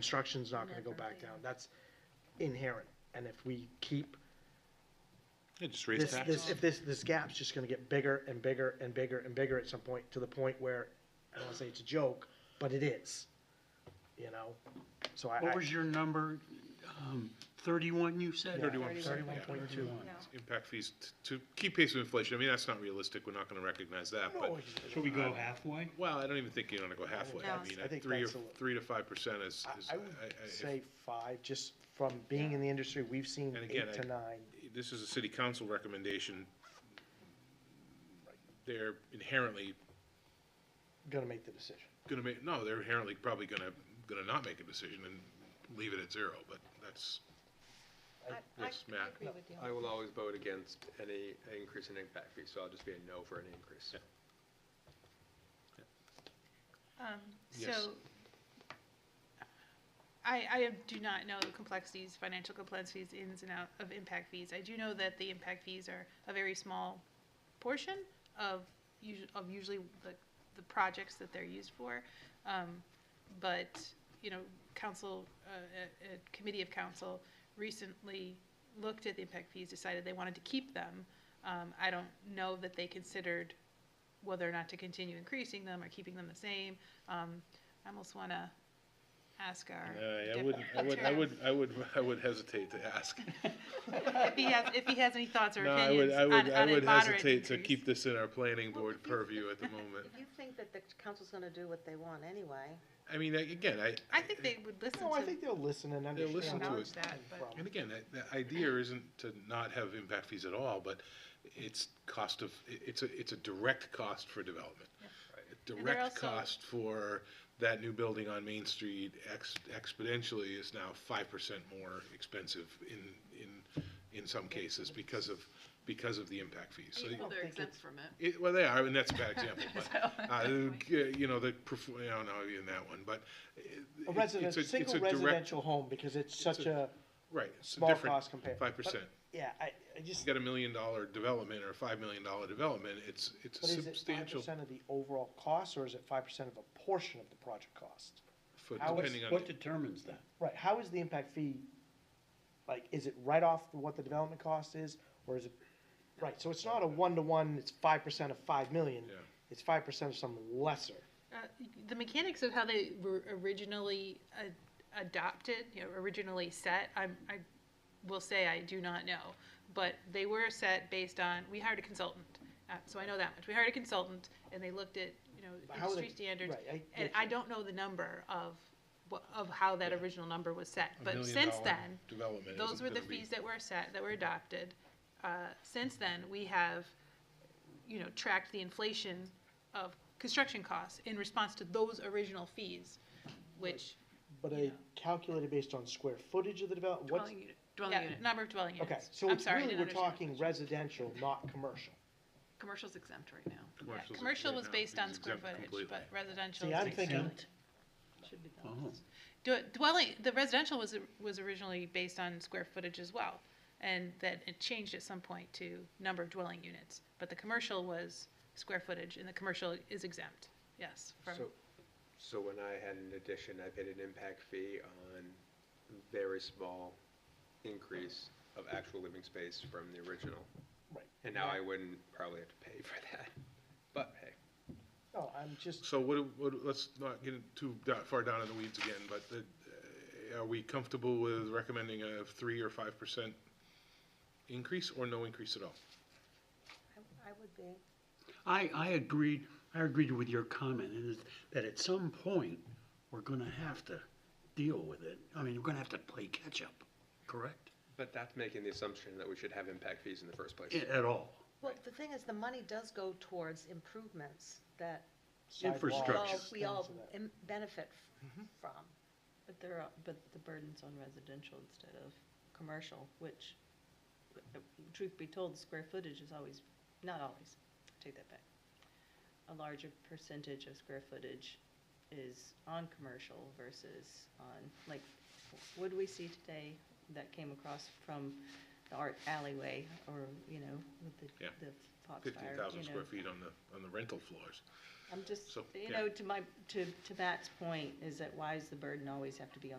construction's not gonna go back down, that's inherent. And if we keep Yeah, just raise this, this, taxes. if this, this gap's just gonna get bigger and bigger and bigger and bigger at some point, to the point where, I don't wanna say it's a joke, but it is, you know? So I, I, What was your number? Um, Thirty-one, you said? Thirty-one percent. thirty-one point two. Impact fees t- to keep pace with inflation, I mean, that's not realistic, we're not gonna recognize that, but, No, Should we go halfway? well, I don't even think you're gonna go halfway. No. I mean, I at think three or, that's a li- three to five percent is, I- is, uh, I I- I- would if- say five, just from being in the industry, we've seen And again, eight to I- nine. this is a city council recommendation. They're inherently Gonna make the decision. gonna make, no, they're inherently probably gonna, gonna not make a decision and leave it at zero, but that's, Yes, Matt. agree with you. I will always vote against any increase in impact fee, so I'll just be a no for any increase. Um, Yes. So, I, I do not know the complexities, financial complexities, ins and out of impact fees. I do know that the impact fees are a very small portion of usu- of usually the, the projects that they're used for. Um, But, you know, council, uh, a, a committee of council recently looked at the impact fees, decided they wanted to keep them. Um, I don't know that they considered whether or not to continue increasing them or keeping them the same. Um, I almost want to ask our. I wouldn't, I would, I would, I would, I would hesitate to ask. If he has, if he has any thoughts or No, I would, opinions I on, would, I on a would moderate hesitate to increase. keep this in our planning board purview at the moment. If you think that the council's gonna do what they want anyway, I mean, I- again, I. I think they would listen No, I think to they'll listen and They'll understand. listen to acknowledge it. that, but And again, that, the idea isn't to not have impact fees at all, but it's cost of, it- it's a, it's a direct cost for development. A they're Direct also- cost for that new building on Main Street ex- exponentially is now five percent more expensive in, in, in some cases because of, because of the impact fees. So you- Well, they're think exempt from it. It, well, they are, and that's a bad example. But, uh, you know, the perf- I don't know in that one, but it, A resident, it's a, it's single a direct residential home, because it's such a, right. It's a small different cost compared. five percent. yeah, I, I You just, got a million dollar development or a five million dollar development. It's it's a but is it five substantial percent of the overall cost, or is it five percent of a portion of the project cost? for How is- depending on. What the- determines that? Right, how is the impact fee, like, is it right off what the development cost is, or is it, right, so it's not a one-to-one, it's five percent of five million. Yeah. It's five percent of some lesser. uh, the mechanics of how they were originally a- adopted, you know, originally set, I'm, I will say I do not know. But they were set based on, we hired a consultant, uh, so I know that much. We hired a consultant and they looked at, you know, How they- industry standards. right, I And get I don't know the number of, wha- of how that original number was set. a But million since dollar then, development those isn't were the gonna be- fees that were set, that were adopted. Uh, Since then, we have, you know, tracked the inflation of construction costs in response to those original fees, which, But I calculated based on square footage of the development, what's, Dwelling unit, yeah, dwelling unit. number of dwelling units. okay, so I'm it's sorry, I really, didn't we're understand. talking residential, not commercial. Commercial's exempt right now. Yeah, commercials Commercial right was now based is on square exempt footage, completely. but residential See, is I'm thinking, Exempt? Should be the Oh. Do- Dwelling, the residential was, was originally based on square footage as well, and that it changed at some point to number of dwelling units. But the commercial was square footage, and the commercial is exempt, yes, from, So, so when I had an addition, I paid an impact fee on very small increase of actual living space from the original. Right. And now I wouldn't probably have to pay for that, but hey. no, I'm just, So what, do- what, do- let's not get too da- far down in the weeds again, but the, uh, are we comfortable with recommending a three or five percent increase or no increase at all? I, I would be. I, I agreed, I agreed with your comment, and is that at some point, we're gonna have to deal with it. I mean, we're gonna have to play catch-up, correct? But that's making the assumption that we should have impact fees in the first place. A- At all. Well, the thing is, the money does go towards improvements that we Infrastructure. all, Structures. we all Things of that. im- benefit f- from. But there are, but the burden's on residential instead of commercial, which, truth be told, square footage is always, not always, take that back. A larger percentage of square footage is on commercial versus on, like, what do we see today that came across from the art alleyway or, you know, with the, Yeah. the Fifteen Foxfire, thousand you square know? feet on the, on the rental floors. I'm just, So, you yeah. know, to my, to, to Matt's point, is that why does the burden always have to be on